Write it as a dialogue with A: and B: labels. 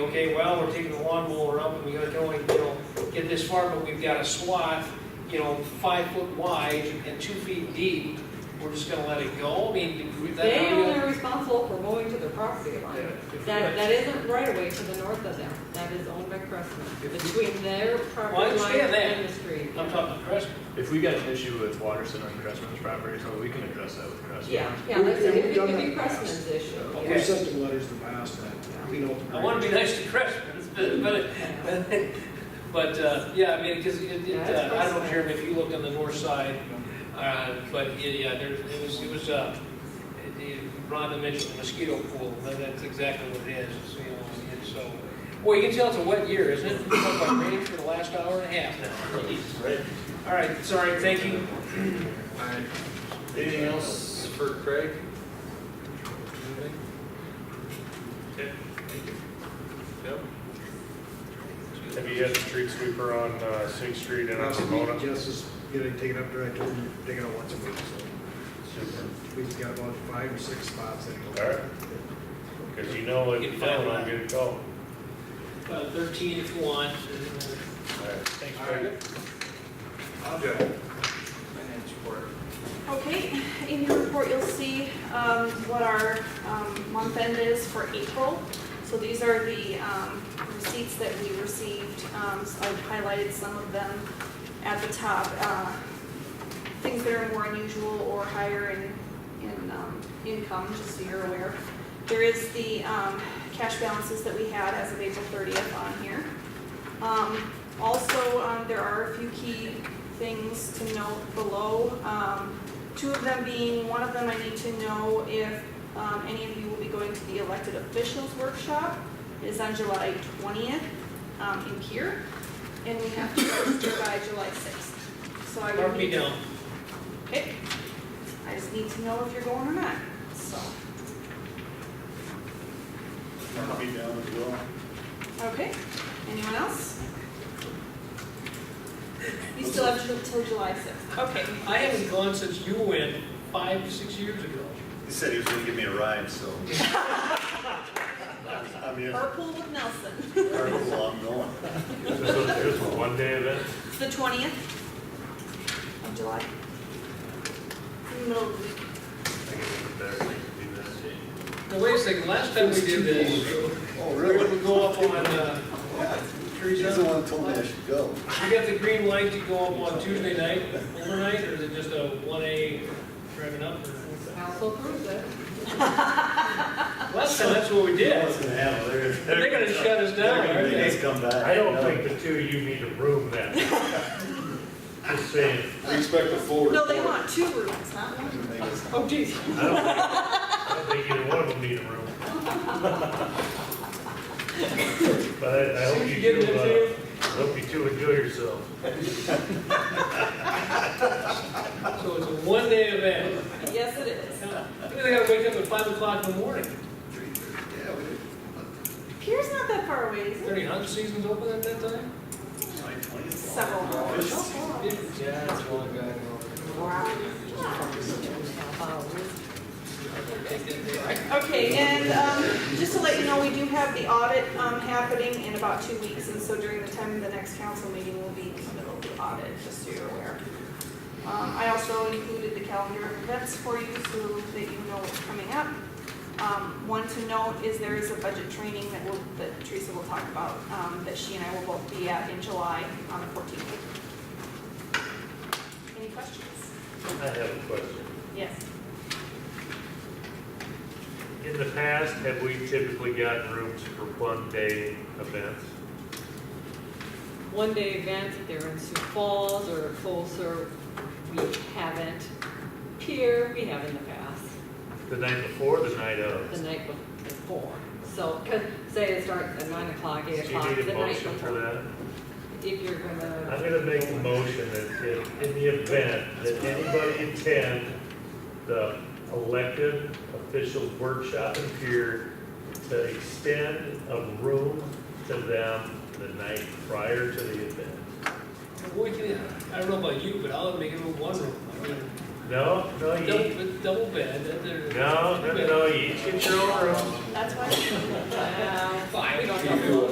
A: okay, well, we're taking the lawnmower up and we gotta go and, you know, get this far, but we've got a swath, you know, five foot wide and two feet deep, we're just gonna let it go, I mean, is that
B: They
A: how we
B: only
A: gonna-
B: are responsible for mowing to their property line.
A: Yeah.
B: That, that isn't right away to the north of them, that is owned by Crestman, between their
A: Well, I
B: property line
A: understand that.
B: and the street.
A: I'm talking Crest,
C: If we got an issue with Waterson on Crestman's property, so we can address that with Crestman.
B: Yeah, yeah,
D: We've-
B: that's, it
D: we've
B: It
D: done
B: could
D: that
B: be
D: in the past.
B: Crestman's issue.
A: Okay.
D: We've sent them letters in the past that, you know.
A: I wanna be nice to Crestman's, but, but, it- but, uh, yeah, I mean, cause it, it, uh, I don't know, Jeremy, if you looked on the north side, uh, but, yeah, yeah, there, it was, it was, uh, it- it- Rhonda mentioned the mosquito pool, but that's exactly what it is, it's, you know, and so. Boy, you can tell it's a wet year, isn't it? It's been like rain for the last hour and a half now. All right, sorry, thank you.
E: Alright, anything else for Craig? Okay, thank you. Yep.
F: Have you had the street sweeper on uh, Sixth Street and on
D: Possibly
F: Pomona?
D: Jess is getting taken up there, I told him, to take it out once a week,
F: Super.
D: so we've got about five or six spots that go.
F: All right. Because you know, if you don't, I'm gonna call. All
A: Uh, thirteen if you want.
F: right, thanks,
E: All
F: Craig.
E: right. I'll do it. Finance report.
G: Okay, in your report, you'll see um, what our um, month end is for April. So these are the um, receipts that we received. Um, so I've highlighted some of them at the top. Uh, Things that are more unusual or higher in, in um, income, just so you're aware. There is the um, cash balances that we had as of April 30th on here. Um, Also, um, there are a few key things to note below. Um, Two of them being, one of them I need to know if um, any of you will be going to the elected officials workshop. It is on July 20th um, in Pier, and we have to register by July 6th. So I
A: Mark
G: would
A: me
G: need,
A: down.
G: okay, I just need to know if you're going or not, so.
E: I'll be down as well.
G: Okay, anyone else? You still have till till July 6th, okay.
A: I haven't gone since you went five, six years ago.
E: He said he was gonna give me a ride, so. I'm here,
G: Carpool with Nelson.
E: Well, I'm going.
F: So it's just a one-day event?
G: It's the twentieth of July. In the Middle of the week.
A: Now, wait a second, last time we did this,
D: Oh,
A: we were gonna go up on, uh,
E: He's
A: Teresa,
E: the one that told me I should go.
A: we got the green light to go up on Tuesday night, overnight, or is it just a one A driving up? or-
B: Council approves it.
A: Last time, that's what we did.
E: What's gonna happen? They're-
A: They're gonna shut us down,
E: They're
A: aren't
E: gonna make
A: they?
E: us come back.
F: I don't
E: No.
F: think the two of you need a room then. Just saying.
E: We expect a full
G: No, they
E: report.
G: want two rooms, not one.
E: They're gonna make us-
B: Oh, geez.
F: I don't think- I don't think either one of them need a room. But I I hope
A: Soon as
F: you
A: you get
F: two,
A: in
F: uh,
A: there,
F: I hope you two enjoy yourselves.
A: so it's a one day event.
G: Yes, it is.
A: Now, They gotta wake up at five o'clock in the morning.
E: Yeah, we did.
G: Pier's not that far away, is it?
A: Thirty hunt season's open at that time?
E: Like 20 is long.
G: Several hours. Oh,
A: Yeah, it's one guy.
B: Wow.
G: Okay, and um, just to let you know, we do have the audit um, happening in about two weeks, and so during the time of the next council meeting, we'll be in the middle of the audit, just so you're aware. Um, I also included the calendar of events for you, so that you know what's coming up. Um, One to note is there is a budget training that will, that Teresa will talk about, um, that she and I will both be at in July on the 14th. Any questions?
F: I have a question.
G: Yes.
F: In the past, have we typically gotten rooms for one-day events?
B: One day events, if they're in Sioux Falls or closer, we haven't. Pier, we have in the past,
F: The night before, the night
B: the
F: of?
B: night before. So, 'cause say it starts at nine o'clock,
F: Do
B: eight
F: you
B: o'clock, the night
F: need a
B: before.
F: motion for that?
B: If you're gonna.
F: I'm gonna make a motion that if, in the event that anybody attend the elected officials workshop in Pier, to extend a room to them the night prior to the event.
A: Boy, can I, I don't know about you, but I'll make it a one room. I mean,
F: No, no, you,
A: Double, double bed, and there-
F: no, no, no, you each get your own room.
G: That's why.
B: Wow.
A: Fine.
B: We don't know.